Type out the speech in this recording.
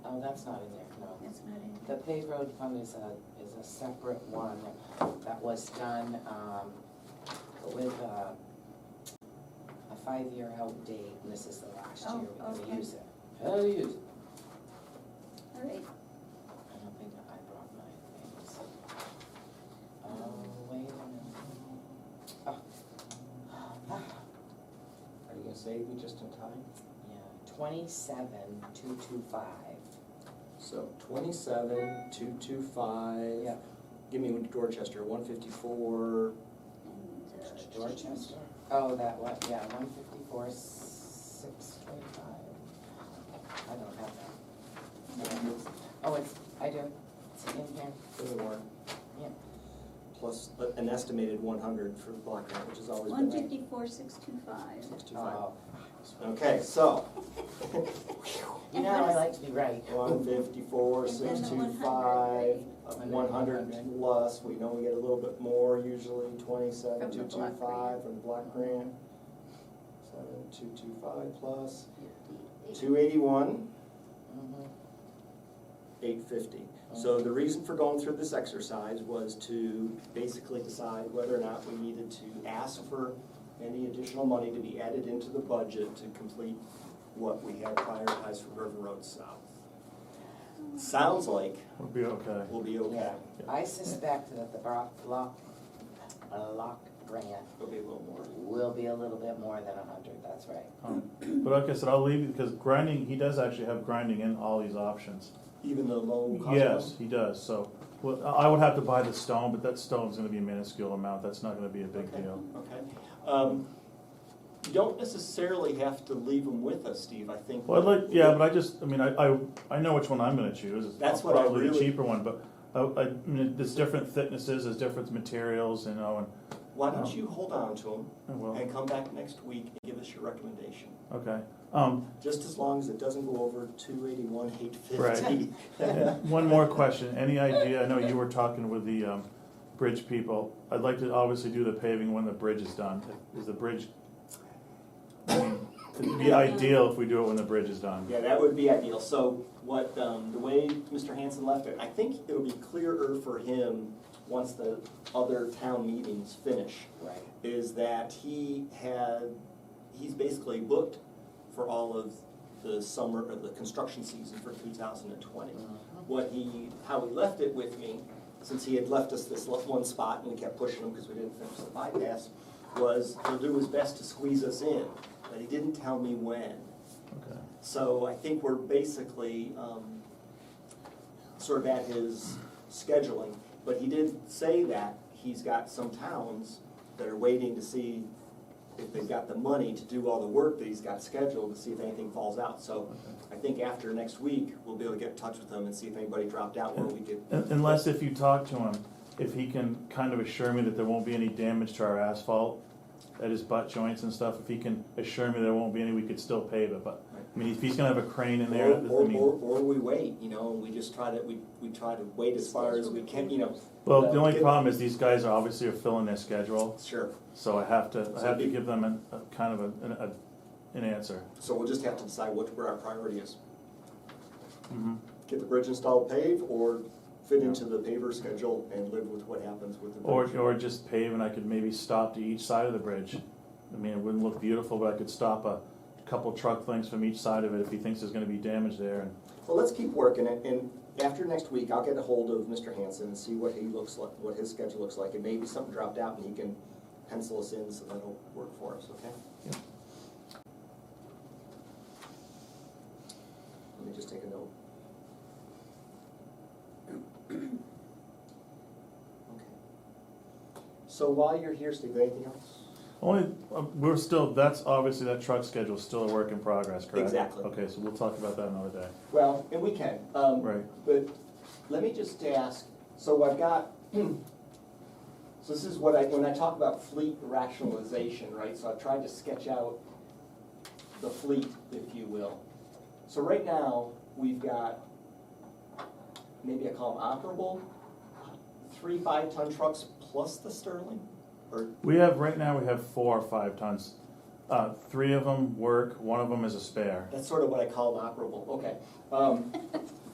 Oh, that's not in there, no. That's not it. The paved road fund is a, is a separate one that was done, um, with a, a five-year out date, and this is the last year Oh, we're gonna okay. use it. How do you use it? All right, I don't think I brought my things. Oh, wait a minute. Oh. Ah, Are you gonna save me just in time? Yeah, twenty-seven, two, two, five. So twenty-seven, two, two, five. Yeah. Give me Dorchester, one fifty-four, and, uh. Dorchester? Oh, that one, yeah, one fifty-four, six twenty-five. I don't have that. Oh, it's, I do, it's in here, there's a warrant. Yeah. Plus a- an estimated one hundred for the block grant, which has always been. One fifty-four, six two five. Six two five. oh. Okay, so. You know, I like to be right. One fifty-four, And then the six two 100, five, right? one hundred plus, we know we get a little bit more usually, From twenty-seven, the two two block five grant. from the block grant. Seven, two two five plus, Fifty-eight. two eighty-one, Mhm. eight fifty. So the reason for going through this exercise was to basically decide whether or not we needed to ask for any additional money to be added into the budget to complete what we had prioritized for River Road South. Sounds like We'll be okay. we'll be okay, Yeah, I suspect that the block, block, block grant it'll be a little more. will be a little bit more than a hundred, that's right. Um, But like I said, I'll leave you, because grinding, he does actually have grinding in all these options. Even the low cost. Yes, he does, so, well, I I would have to buy the stone, but that stone's gonna be a minuscule amount, that's not gonna be a big Okay. deal. Okay. Um, You don't necessarily have to leave them with us, Steve, I think. Well, I'd like, yeah, but I just, I mean, I, I, I know which one I'm gonna choose, it's That's what I probably the really- cheaper one, but I, I, I mean, there's different thicknesses, there's different materials, you know, Why don't you hold on to them and, Oh. well, and come back next week and give us your recommendation? okay. Um, Just as long as it doesn't go over two eighty-one, eight fifty. Right. One more question, any idea, I know you were talking with the, um, bridge people, I'd like to obviously do the paving when the bridge is done, is the bridge? I mean, It'd be ideal if we do it when the bridge is done, Yeah, that would be ideal. So what, um, the way Mr. Hanson left it, I think it'll be clearer for him once the other town meetings finish. Right. is that he had, he's basically booked for all of the summer, or the construction season for two thousand and twenty. Mm-hmm. What he, how he left it with me, since he had left us this left one spot and we kept pushing him because we didn't finish the bypass, was he'll do his best to squeeze us in, but he didn't tell me when. okay. So I think we're basically um, sort of at his scheduling, but he did say that he's got some towns that are waiting to see if they've got the money to do all the work that he's got scheduled, to see if anything falls out. So I think after next week, we'll be able to get in touch with him and see if anybody dropped out where we could. Un- Unless if you talk to him, if he can kind of assure me that there won't be any damage to our asphalt at his butt joints and stuff, if he can assure me there won't be any, we could still pave it, but, I mean, if he's gonna have a crane in there, Or, I or, mean. or or we wait, you know, and we just try to, we, we try to wait as far as we can, you know. Well, the only uh, Get- problem is these guys are obviously are filling their schedule, Sure. so I have to, I So have to be- give them an, a kind of a, an, a, an answer. So we'll just have to decide what, where our priority is. Mhm. get the bridge installed paved or fit into the paver schedule and live with what happens with the Or, bridge. or just pave and I could maybe stop to each side of the bridge. I mean, it wouldn't look beautiful, but I could stop a couple truck lengths from each side of it if he thinks there's gonna be damage there and, Well, let's keep working it and after next week, I'll get a hold of Mr. Hanson and see what he looks like, what his schedule looks like. And maybe something dropped out and he can pencil us in so that'll work for us, okay? Yeah. Let me just take a note. Okay. So while you're here, Steve, anything else? Only, uh, we're still, that's obviously, that truck schedule's still a work in progress, correct? Exactly. Okay, so we'll talk about that another day. Well, and we can, um, Right. but let me just ask, so I've got, so this is what I, when I talk about fleet rationalization, right, so I've tried to sketch out the fleet, if you will. So right now, we've got, maybe I call them operable, three five-ton trucks plus the Sterling, or, We have, right now, we have four or five tons. Uh, three of them work, one of them is a spare. that's sort of what I call them operable, okay. Um,